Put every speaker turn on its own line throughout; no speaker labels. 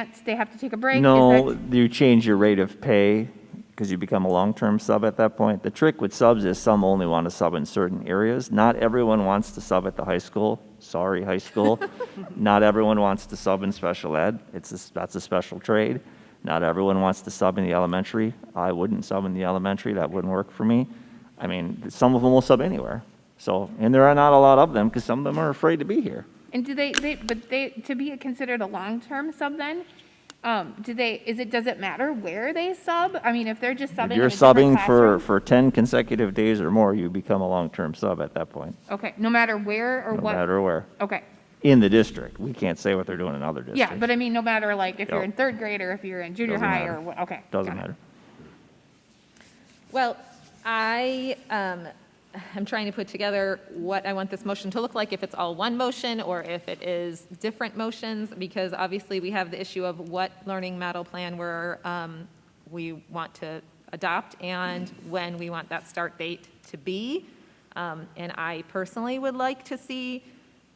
That's- They have to take a break? Is
No,
that-
you change your rate of pay because you become a long-term sub at that point. The trick with subs is some only want to sub in certain areas. Not everyone wants to sub at the high school. Sorry, high school. Not everyone wants to sub in special ed. It's, a- that's a special trade. Not everyone wants to sub in the elementary. I wouldn't sub in the elementary. That wouldn't work for me. I mean, some of them will sub anywhere. So, and there are not a lot of them because some of them are afraid to be here.
And do they, they, but they, to be considered a long-term sub then? Um, do they, is it, does it matter where they sub? I mean, if they're just subbing
If
in
you're
a different
subbing for,
classroom?
for 10 consecutive days or more, you become a long-term sub at that point,
Okay, no matter where or
no
what?
matter where.
Okay,
In the district. We can't say what they're doing in other districts.
yeah, but I mean, no matter like if you're
Yep.
in third grade or if you're in junior
Doesn't
high
matter.
or what, okay.
Doesn't
got it.
matter.
Well, I, um, I'm trying to put together what I want this motion to look like, if it's all one motion or if it is different motions, because obviously we have the issue of what learning model plan we're, um, we want to adopt and when we want that start date to be. Um, And I personally would like to see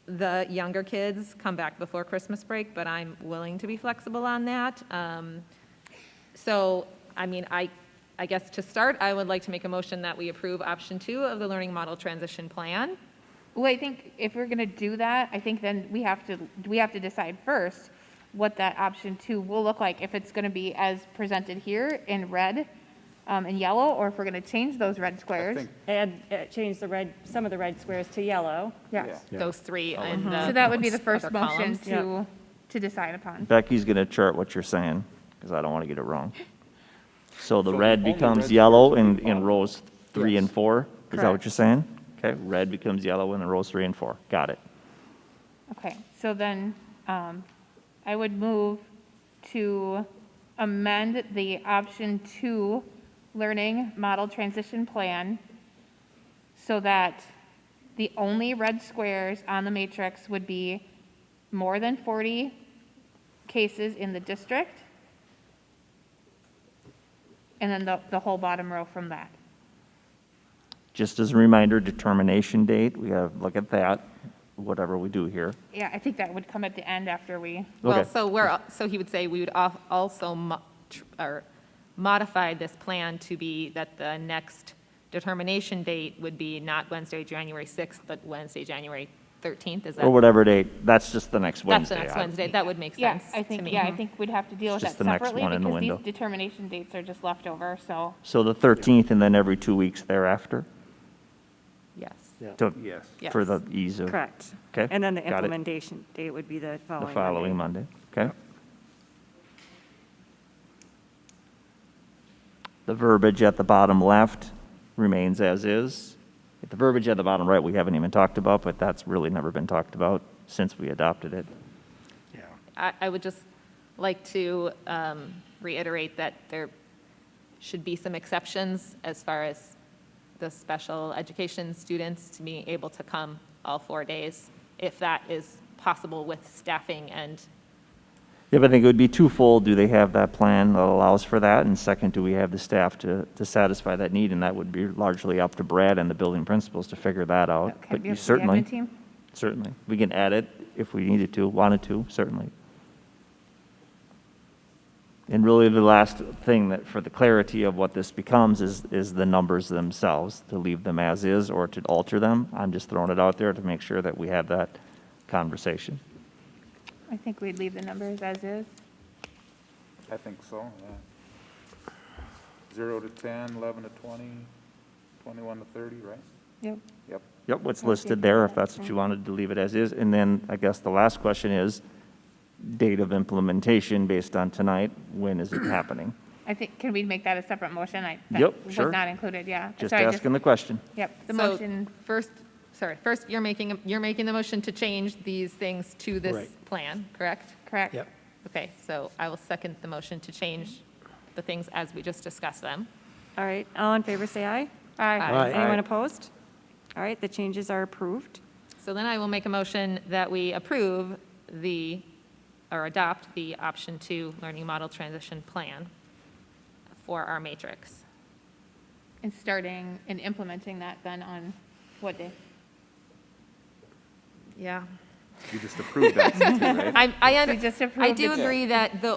the younger kids come back before Christmas break, but I'm willing to be flexible on that. Um, so, I mean, I, I guess to start, I would like to make a motion that we approve option two of the learning model transition plan.
Well, I think if we're gonna do that, I think then we have to, we have to decide first what that option two will look like, if it's gonna be as presented here in red, um, and yellow, or if we're gonna change those red squares.
Add, uh, change the red, some of the red squares to yellow.
Yes.
Those three and the.
So that would be the
other
first motion
columns.
to, to decide upon.
Becky's going to chart what you're saying because I don't want to get it wrong. So the
So
red
only
becomes
red
yellow
becomes
in, in
blue.
rows three and
Yes.
four? Is that what
Correct.
you're saying? Okay, red becomes yellow in the rows three and four. Got it.
Okay, so then, um, I would move to amend the option two learning model transition plan so that the only red squares on the matrix would be more than forty cases in the district. And then the, the whole bottom row from that.
Just as a reminder, determination date, we got to look at that, whatever we do here.
Yeah, I think that would come at the end after we.
Well,
Okay.
so we're, al- so he would say we would al- also, mo- tr- or modify this plan to be that the next determination date would be not Wednesday, January 6th, but Wednesday, January 13th, is that?
Or whatever date, that's just the next
That's the
Oh, Wednesday.
next
I-
Wednesday, that would make
Yeah,
sense
I
to
think,
me.
yeah, I think we'd have to deal with
Just
that
the next
separately
one in the
because these
window.
determination dates are just left over, so.
So the 13th and then every two weeks thereafter?
Yes.
To-
Yes.
For
Yes.
the ease of.
Correct.
Okay,
And then the
got it.
implementation date would be the following
The
Monday.
following Monday, okay? The verbiage at the bottom left remains as is. The verbiage at the bottom right, we haven't even talked about, but that's really never been talked about since we adopted it.
I, I would just like to um, reiterate that there should be some exceptions as far as the special education students to be able to come all four days, if that is possible with staffing and,
Yeah, but I think it would be twofold. Do they have that plan that allows for that? And second, do we have the staff to, to satisfy that need? And that would be largely up to Brad and the building principals to figure that out.
Okay,
Oh, But
we
you
have the admin
certainly,
team?
certainly, we can add it if we needed to, wanted to, certainly. And really, the last thing that, for the clarity of what this becomes is, is the numbers themselves, to leave them as is or to alter them. I'm just throwing it out there to make sure that we have that conversation.
I think we'd leave the numbers as is.
I think so, yeah. Zero to 10, 11 to 20, 21 to 30, right?
Yep.
Yep.
Yep, what's listed there, if that's what you wanted to leave it as is. And then I guess the last question is, date of implementation based on tonight, when is it happening?
I think, can we make that a separate motion? I that
Yep, sure.
Was not included, yeah.
Just
So I
asking the question.
Yep, the
So,
motion,
First, sorry, first, you're making, you're making the motion to change these things to this
Right.
plan, correct?
correct?
Yep.
Okay, so I will second the motion to change the things as we just discussed them.
All right, all in favor, say aye.
Aye.
Aye.
Anyone opposed? All right, the changes are approved.
So then I will make a motion that we approve the, or adopt the option two learning model transition plan for our matrix.
And starting and implementing that then on what day?
Yeah.
You just approved that, right?
I, I,
We just
under- I
approved
do
it.
agree that the